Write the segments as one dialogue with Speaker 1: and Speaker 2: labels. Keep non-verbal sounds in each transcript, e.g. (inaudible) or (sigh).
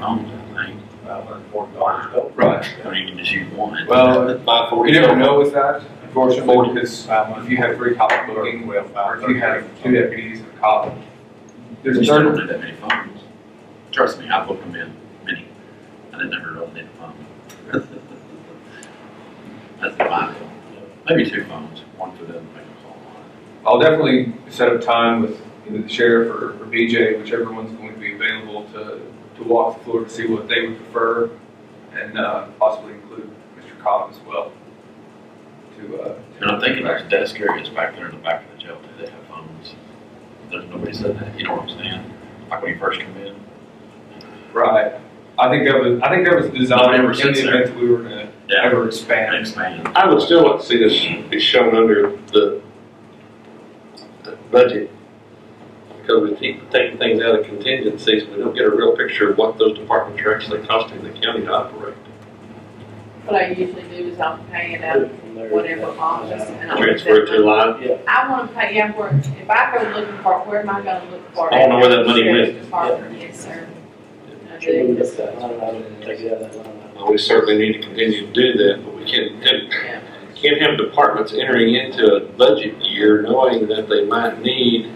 Speaker 1: on that thing.
Speaker 2: Right.
Speaker 1: I mean, you can just use one.
Speaker 2: Well,
Speaker 3: By
Speaker 2: you never know uh, with that, unfortunately, because if you have three cop booking, or if
Speaker 3: If
Speaker 2: you have two deputies and a cop, there's
Speaker 1: We
Speaker 2: a
Speaker 1: still
Speaker 2: third.
Speaker 1: don't need that many phones. Trust me, I booked them in many. I didn't ever really need a phone. (laughs) That's the my phone. Maybe two phones, one for them, make a call on.
Speaker 2: I'll definitely set up time with either the sheriff or, or BJ, whichever one's going to be available to, to walk the floor to see what they would prefer and, uh, possibly include Mr. Cobb as well. To, uh.
Speaker 1: And I'm thinking there's desk areas back there in the back of the jail, do they have phones? There's nobody said that, you know what I'm saying? Like when you first come in.
Speaker 2: Right. I think that was, I think that was
Speaker 1: Nobody
Speaker 2: designed in
Speaker 1: ever
Speaker 2: the
Speaker 1: sits there.
Speaker 2: event that we were gonna
Speaker 1: Yeah,
Speaker 2: ever expand.
Speaker 1: expand.
Speaker 3: I would still like to see this be shown under the the budget. Because we keep taking things out of contingencies, we don't get a real picture of what those departments are actually costing the county to operate.
Speaker 4: What I usually do is I'll pay it out of whatever office and I'll.
Speaker 3: Transfer it to a line,
Speaker 4: I wanna pay, yeah, where, if I go looking for, it, where am I gonna look for? it?
Speaker 3: I wanna know where that money
Speaker 4: Sheriff's
Speaker 3: went.
Speaker 4: Department, yes, sir. I
Speaker 5: Should we
Speaker 4: do.
Speaker 5: look at that line item and take it out of that line item?
Speaker 3: Well, we certainly need to continue to do that, but we can't,
Speaker 4: Yeah.
Speaker 3: have- can't have departments entering into a budget year knowing that they might need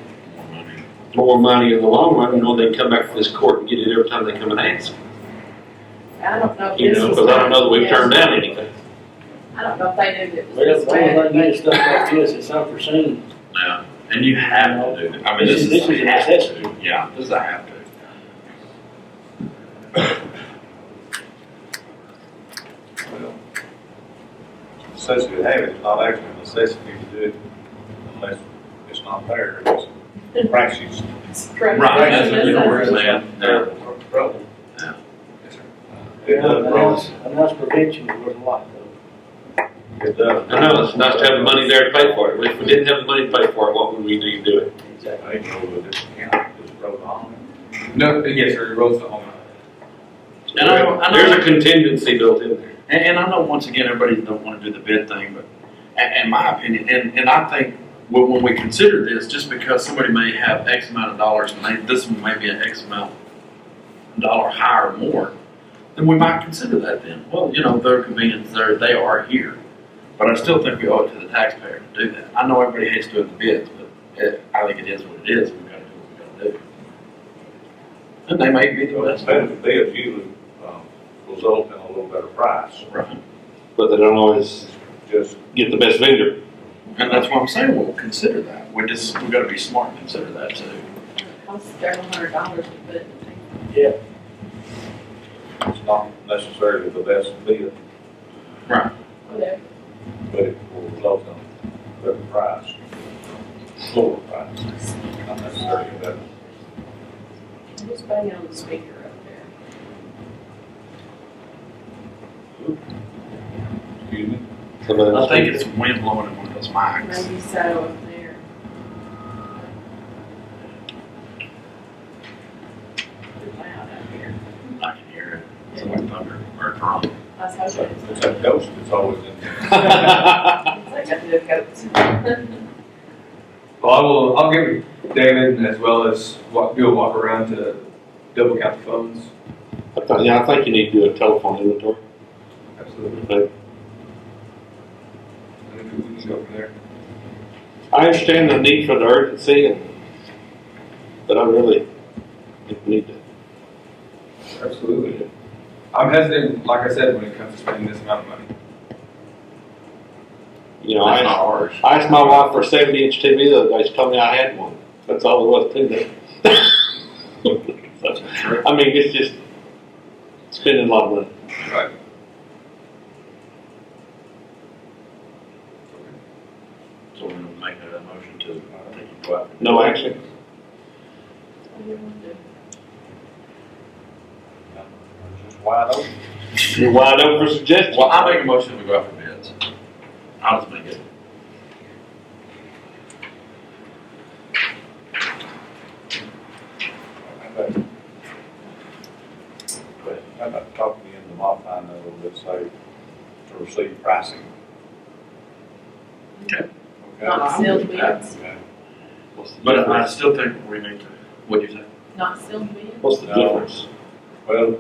Speaker 3: more money in the long run, you know, they can come back to this court and get it every time they come and ask,
Speaker 4: I don't know if
Speaker 3: you
Speaker 4: this
Speaker 3: know,
Speaker 4: was.
Speaker 3: because I don't know that we've
Speaker 4: yes.
Speaker 3: turned down anything.
Speaker 4: I don't know if they knew that it was
Speaker 5: Well,
Speaker 4: this
Speaker 5: the only
Speaker 4: bad.
Speaker 5: thing you stuff like this, it's unforeseen.
Speaker 1: Yeah, and you have to do that. I mean,
Speaker 5: This
Speaker 1: this is.
Speaker 5: is- this is a necessity.
Speaker 1: Yeah, this is a have to.
Speaker 6: necessity to have it, it's not actually a necessity to do it unless it's not there, it's practice.
Speaker 4: Correct.
Speaker 1: Right, that's what you know, where's
Speaker 4: Yes, sir.
Speaker 1: that? Yeah.
Speaker 6: Trouble.
Speaker 2: Yes, sir.
Speaker 6: It does,
Speaker 5: And
Speaker 6: wrong.
Speaker 5: that's, and that's prevention is worth a lot though.
Speaker 6: it does.
Speaker 3: I know, it's nice to have the money there to pay for it, if we didn't have the money to pay for it, what would we do to do it?
Speaker 5: Exactly.
Speaker 6: They know that it's counted, it's wrote on.
Speaker 2: No, yes, sir, it rolls the home.
Speaker 1: And I don't- I don't-
Speaker 3: There's a contingency built in there.
Speaker 1: And, and I know once again, everybody don't want to do the bid thing, but in, in my opinion, and, and I think when, when we consider this, just because somebody may have X amount of dollars and they, this one may be an X amount dollar higher or more, then we might consider that then. Well, you know, their convenience, they're, they are here. But I still think we owe it to the taxpayer to do that. I know everybody hates doing the bids, but it, I think it is what it is. We've got to do what we've got to do. And they may be the
Speaker 6: So
Speaker 1: best.
Speaker 6: instead of bids usually, um, result in a little better price,
Speaker 1: Right.
Speaker 3: But they don't always
Speaker 6: just
Speaker 3: get the best vendor.
Speaker 1: And that's what I'm saying, we'll consider that. We just, we gotta be smart and consider that too.
Speaker 4: It Costs several hundred dollars to put it in.
Speaker 6: it's not necessarily the best bid,
Speaker 4: Whatever.
Speaker 6: but it will result in a better price, lower price, not necessarily a better.
Speaker 4: Who's banging on the speaker up there?
Speaker 6: Excuse me?
Speaker 1: I think it's wind blowing in one of those mics.
Speaker 4: Maybe so up there. Pretty loud up here.
Speaker 1: I can hear it. It's like thunder or drum.
Speaker 4: I was hoping it's.
Speaker 6: It's that ghost that's always in there.
Speaker 4: It's like a new coat.
Speaker 2: Well, I will, I'll get with David as well as walk, do a walk around to double count the phones.
Speaker 3: I thought- Yeah, I think you need to do a telephone inventory.
Speaker 2: Absolutely. And then we can go from there.
Speaker 3: I understand the need for the urgency, and, but I really think we need to.
Speaker 2: Absolutely. I'm hesitant, like I said, when it comes to spending this amount of money.
Speaker 3: You know, I
Speaker 1: That's not
Speaker 3: asked,
Speaker 1: ours.
Speaker 3: I asked my wife for a 70 inch TV the other day. She told me I had one. That's all there was to that. (laughs) So, I mean, it's just spending a lot of money.
Speaker 2: Right.
Speaker 1: So we're gonna make a motion to, I think, you go out.
Speaker 3: No action.
Speaker 6: It's Just wide open.
Speaker 3: You're wide open for suggestions.
Speaker 1: Well, I make a motion to go out for bids. I'll just make it.
Speaker 6: But I'm not talking to you in the modifying that a little bit, so to receive pricing.
Speaker 1: Okay.
Speaker 4: Not sealed bids,
Speaker 6: Okay.
Speaker 3: What's the
Speaker 1: But I
Speaker 3: difference?
Speaker 1: still think we need to, what'd you say?
Speaker 4: not sealed bids.
Speaker 3: What's the
Speaker 6: No.
Speaker 1: uh,
Speaker 3: difference?
Speaker 6: Well,